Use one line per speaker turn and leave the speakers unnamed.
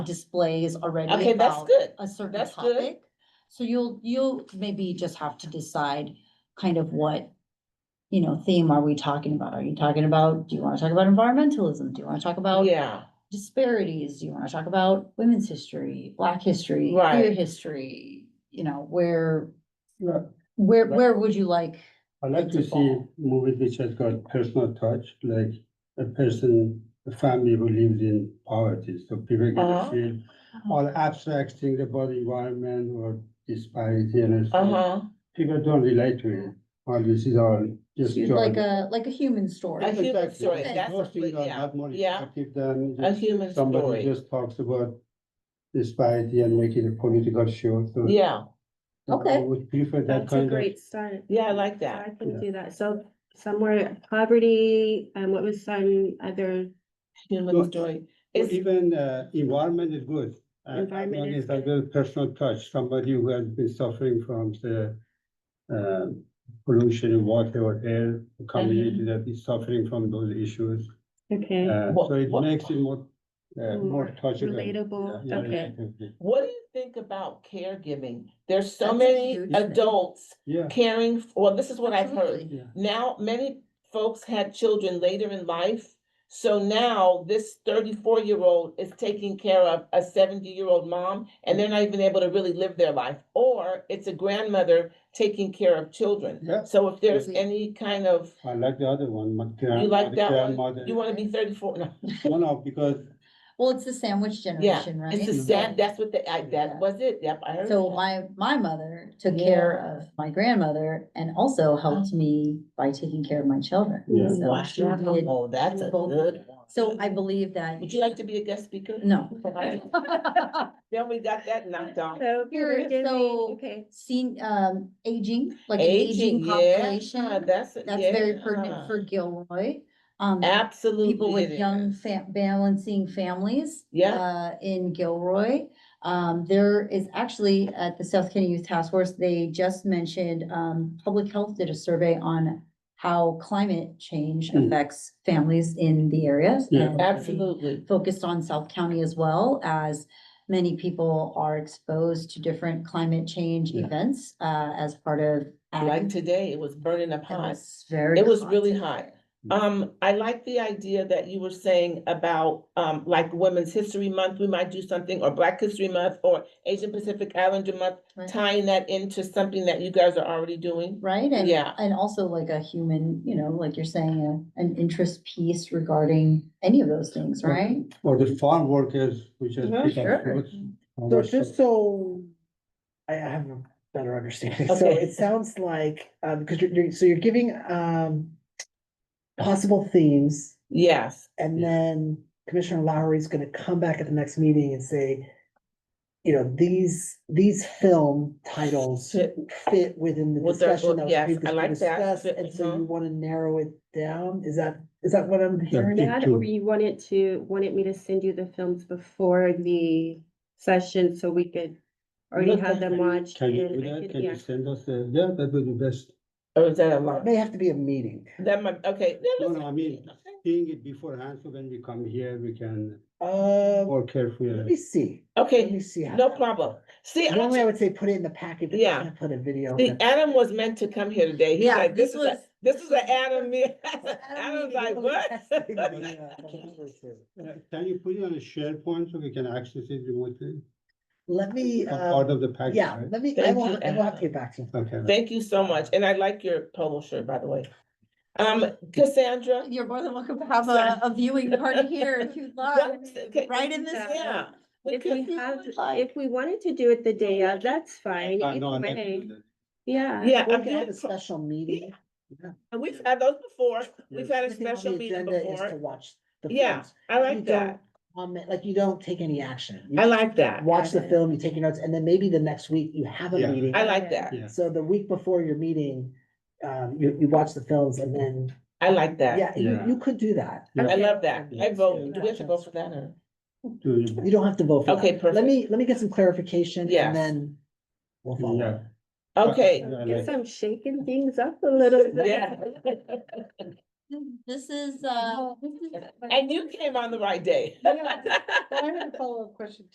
displays already
Okay, that's
about
good.
a certain
That's good.
topic. So you'll, you'll maybe just have to decide kind of what, you know, theme are we talking about? Are you talking about, do you wanna talk about environmentalism? Do you wanna talk about
Yeah,
disparities? Do you wanna talk about women's history, black history, queer
Right.
history? You know, where,
Yeah,
where,
Right.
where would you like?
I like to see movies which has got personal touch, like a person, a family who lives in poverty, so people get
Uh-huh.
to feel or abstract things about environment or disparity and
uh
stuff.
huh.
People don't relate to it, or this is all just.
You'd
joy.
Like a, like a human story?
A human
Exactly.
story,
Those
that's a
things
good-
are
yeah,
not more
yeah.
effective than
A
just
human
somebody
story.
just talks about disparity and make it a political show, so.
Yeah,
so I
Okay.
Would prefer that
That's a
kind of.
great start.
yeah, I like that.
I can do that. So somewhere poverty, and what was some other,
Human
Well,
story.
Or
It's,
Even uh, environment is good. Uh, As
Environment
long
is
as I
good.
will personal touch, somebody who has been suffering from the um, pollution in water or air, a community that is suffering from those issues.
okay,
Uh,
What-
So it
what-
makes it more, uh,
More
more touchable.
relatable.
Yeah, yeah,
Okay.
relatively.
what do you think about caregiving? There's so
That's a
many
huge thing.
adults
Yeah,
caring, f- well, this is what I've heard.
Absolutely.
yeah.
Now, many folks had children later in life. So now this thirty-four year old is taking care of a seventy-year-old mom and they're not even able to really live their life. Or it's a grandmother taking care of children.
Yeah.
So if there's
Mhm.
any kind of,
I like the other one, my grand-
you like
my
that one,
grandmother.
you wanna be thirty-four, no.
No, no, because
Well, it's the sandwich generation, right?
It's the
So-
sad, that's what the, I,
Yeah.
that was it, yep, I heard.
So
that.
my, my mother took care of my grandmother and also helped me by taking care of my children.
Yeah.
So she did-
Uh-huh. Wow, Oh, that's a
both-
good one.
So I believe that,
Would you like to be a guest speaker?
no.
Then we got that knocked out.
so
Here,
caregiving,
so-
okay,
Seen, um, aging, like an
Aging,
aging
yeah,
population,
that's. a-
that's very
yeah.
pertinent for Gilroy. Um,
Absolutely.
people with
it
young
is.
fam- balancing families.
Yeah.
Uh, in Gilroy. Um, there is actually at the South County Youth Task Force, they just mentioned, um, Public Health did a survey on how climate change
Mm.
affects families in the areas.
Yeah.
and they
Absolutely.
Focused on South County as well as many people are exposed to different climate change
Yeah.
events, uh, as part of. ag.
Like today, it was burning up
It
hot.
was very.
It was
hot.
really hot. Um, I like the idea that you were saying about, um, like Women's History Month, we might do something, or Black History Month, or Asian Pacific Islander Month,
Right.
tying that into something that you guys are already doing.
Right, and,
Yeah.
and also like a human, you know, like you're saying, a, an interest piece regarding any of those things,
Right.
right?
for the farm workers, which has
Mhm.
picked up
Sure.
fruits. how
So
much
just so I I have a better understanding, so
Okay.
it sounds like, um, because you're, you're, so you're giving, um. Possible themes,
Yes,
and
Yeah.
then Commissioner Lowry is gonna come back at the next meeting and say. You know, these, these film titles
Fit.
fit within the
With their-
discussion that
yes, I
was previously
like that.
discussed,
Fit-
and so you
mhm.
wanna narrow it down, is that, is that what I'm hearing?
pick
that,
two.
or you wanted to, wanted me to send you the films before the session so we could already
Look,
have them
can you-
watched.
Can you
and
do
I
that?
could-
Can
yeah.
you send us, the- yeah, that would be best.
or is that a
It
lot?
May have to be a meeting.
That might, okay. that
No,
was-
no, I mean, seeing it beforehand, so when we come here, we can
Uh,
more carefully.
let me see, let me
Okay,
see. how
no
that-
problem. See, I
Normally I
ju-
would say put it in the packet, but you
Yeah.
can't put a video.
see,
in it.
Adam was meant to come here today. He's like, this is, a- this is an Adam me. Adam's
Adam Oh,
like,
really has to
what?
be, uh, completely true.
Uh, Can you put it on a SharePoint so we can access it remotely?
Let me,
It's not Part
uh,
of the package,
yeah,
right?
let me, I
Thank
will,
you,
I will have to
Adam.
get back to you.
Okay. right.
Thank you so much. And I like your polo shirt, by the way. Um, Cassandra,
Oh, You're more than welcome to have a, a viewing party here if you'd like,
okay,
right in this room.
yeah.
If
because-
we have,
like-
if we wanted to do it the day of, that's fine.
Uh,
either
no, I'm not
way.
doing that.
Yeah.
Yeah,
We
I'm
can have a
doing-
special meeting.
and we've had those before. We've
Yes.
had a
Everything on
special
the
meeting
agenda is To
before.
watch. the
Yeah,
films.
I
You
like that.
don't Comment, like you don't take any action. You
I like that.
Watch the film, you take your notes, and then maybe the next week you have a
Yeah.
meeting.
I like that.
Yeah.
So the week before your meeting, um, you, you watch the films and then,
I like that.
yeah, you,
Yeah.
you could do that.
Yeah.
I love that. I
Yes.
vote. Do we have to vote for that or?
Do you-
You don't have to vote for that.
Okay,
Let
perfect.
me, let me get some clarification
Yes.
and then we'll follow
Yeah.
up.
Okay,
Yeah, I
Guess
like-
I'm shaking things up a little bit.
yeah.
This is, uh,
And you came on the right day.
Yeah, But I had a follow-up question